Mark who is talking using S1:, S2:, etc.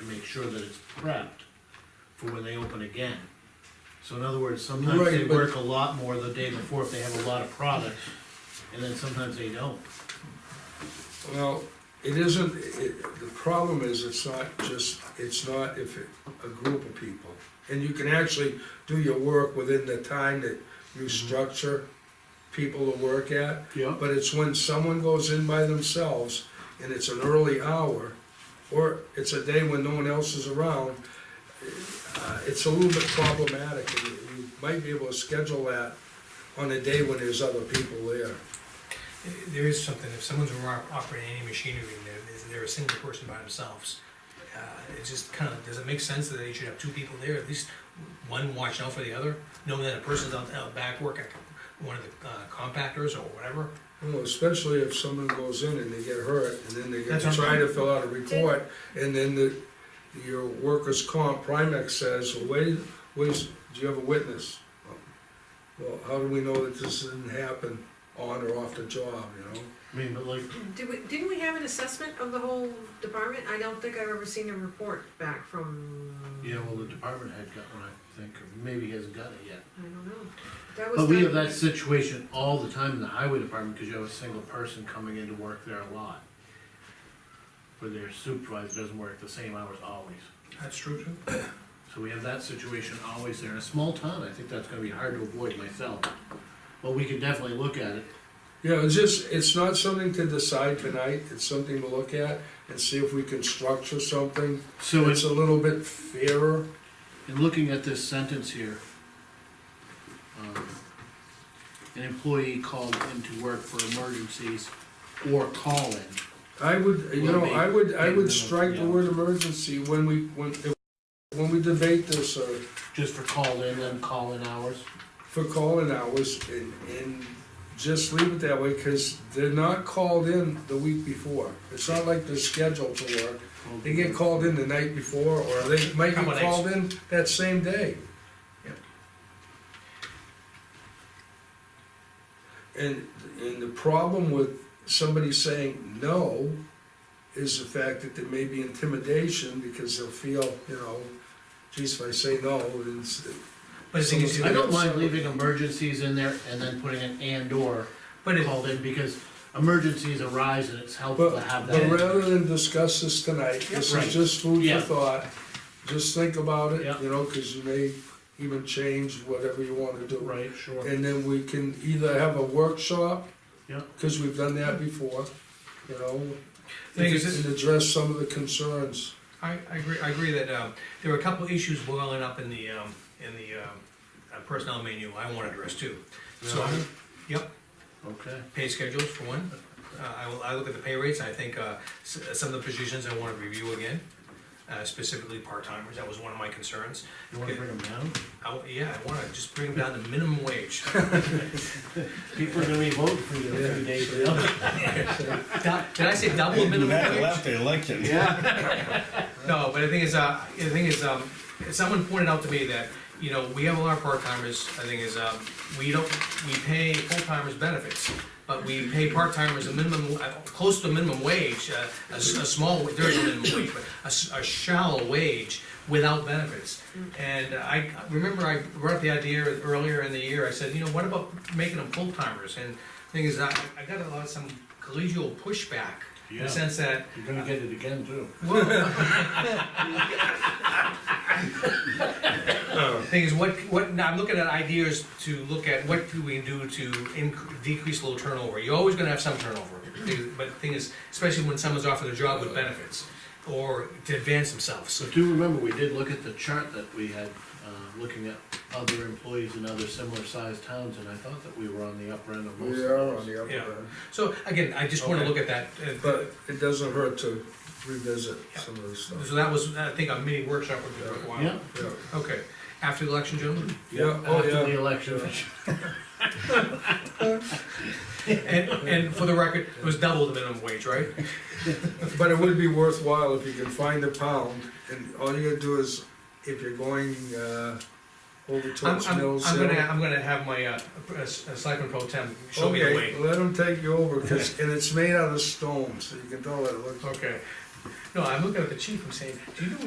S1: and make sure that it's prepped for when they open again. So in other words, sometimes
S2: Right,
S1: they
S2: but-
S1: work a lot more the day before if they have a lot of products, and then sometimes they don't.
S2: Well, it isn't, it, the problem is, it's not just, it's not if it, a group of people. And you can actually do your work within the time that you structure people to work at.
S1: Yeah.
S2: But it's when someone goes in by themselves and it's an early hour, or it's a day when no one else is around, uh, it's a little bit problematic. and You you might be able to schedule that on a day when there's other people there.
S3: There is something, if someone's ro- operating any machinery and they're, they're a single person by themselves, uh, it just kind of, does it make sense that they should have two people there, at least one watching out for the other? Knowing that a person's out, out back working, one of the uh, compactors or whatever,
S2: Well, especially if someone goes in and they get hurt, and then they get
S3: That's what
S2: to
S3: I'm
S2: try to fill out a report, and then the, your workers' comp, Primex says, well, wait, wait, do you have a witness? Well, how do we know that this didn't happen on or off the job, you know?
S1: I mean, but like,
S4: Did we, didn't we have an assessment of the whole department? I don't think I've ever seen a report back from.
S1: yeah, well, the department head got one, I think, or maybe he hasn't got it yet.
S4: I don't know. That was.
S1: But we
S4: done-
S1: have that situation all the time in the highway department, cause you have a single person coming in to work there a lot. Where their supervisor doesn't work the same hours always.
S3: that's true too.
S1: So we have that situation always there. In a small town, I think that's gonna be hard to avoid myself. But we can definitely look at it.
S2: Yeah, it's just, it's not something to decide tonight, it's something to look at and see if we can structure something
S1: So
S2: that's
S1: it's,
S2: a little bit fairer.
S1: in looking at this sentence here, um, an employee called into work for emergencies or call-in.
S2: I would, you know, I would, I would strike the word emergency when we, when, when we debate this, or
S1: just for call-in and call-in hours.
S2: for calling hours and, and just leave it that way, cause they're not called in the week before. It's not like they're scheduled to work. They get called in the night before, or they might get
S3: Couple days.
S2: called in that same day.
S3: Yep.
S2: And, and the problem with somebody saying no is the fact that there may be intimidation, because they'll feel, you know, geez, if I say no, then it's,
S3: But the thing is,
S1: I don't mind leaving emergencies in there and then putting an and/or
S3: but it,
S1: called in, because emergencies arise and it's helpful to
S2: But,
S1: have
S2: but rather
S1: that.
S2: than discuss this tonight, this
S1: Right.
S2: is just food
S1: Yeah.
S2: for thought, just think about
S1: Yeah.
S2: it, you know, cause you may even change whatever you wanna do.
S1: Right, sure.
S2: And then we can either have a workshop.
S1: Yeah.
S2: Cause we've done that before, you know,
S3: Thing
S2: and
S3: is, this-
S2: and address some of the concerns.
S3: I, I agree, I agree that, um, there were a couple issues boiling up in the, um, in the, um, uh, personnel manual I want to address too. So,
S1: Really?
S3: yep,
S1: Okay.
S3: pay schedules for one. Uh, I will, I look at the pay rates, I think, uh, s- some of the positions I wanna review again, uh, specifically part-timers, that was one of my concerns.
S1: You wanna bring them down?
S3: I w yeah, I wanna just bring them down to minimum wage,
S1: People are gonna be voting for you in a few days.
S3: Du- did I say double minimum
S5: That
S3: wage?
S5: left the election.
S1: Yeah.
S3: No, but the thing is, uh, the thing is, um, someone pointed out to me that, you know, we have a lot of part-timers, the thing is, um, we don't, we pay full-timers benefits, but we pay part-timers a minimum, uh, close to minimum wage, uh, a, s- a small, there is a minimum wage, but a s- a, shallow wage without benefits. And I, remember I brought up the idea earlier in the year, I said, you know, what about making them full-timers? And the thing is, I, I got a lot of some collegial pushback, in
S1: Yeah.
S3: the sense that,
S1: You're gonna get it again too.
S3: Thing is, what, what, now I'm looking at ideas to look at, what do we do to inc- decrease low turnover? You're always gonna have some turnover, Thing- but the thing is, especially when someone's offered a job with benefits, or to advance themselves, so.
S1: But do remember, we did look at the chart that we had, uh, looking at other employees in other similar sized towns, and I thought that we were on the upper end of most of
S2: We are on
S1: those.
S2: the upper
S3: Yeah.
S2: end,
S3: So, again, I just wanna
S1: Okay.
S3: look at that, uh,
S2: but it doesn't hurt to revisit some of this stuff.
S3: so that was, I think, a mini workshop would be worthwhile.
S1: Yeah.
S2: Yeah,
S3: Okay, after the election, gentlemen?
S2: yeah, oh
S1: After the
S2: yeah,
S1: election.
S3: And, and for the record, it was double the minimum wage, right?
S2: but it would be worthwhile if you can find a pound, and all you gotta do is, if you're going, uh, over
S3: I'm,
S2: towards
S3: I'm,
S2: Mills
S3: I'm
S2: Hill-
S3: gonna, I'm gonna have my, uh, uh, s- uh, selectman pro tem show me the way.
S2: Okay, let them take you over, 'cause- and it's made out of stone, so you can tell it looks
S3: Okay. No, I'm looking at the chief, I'm saying, do you know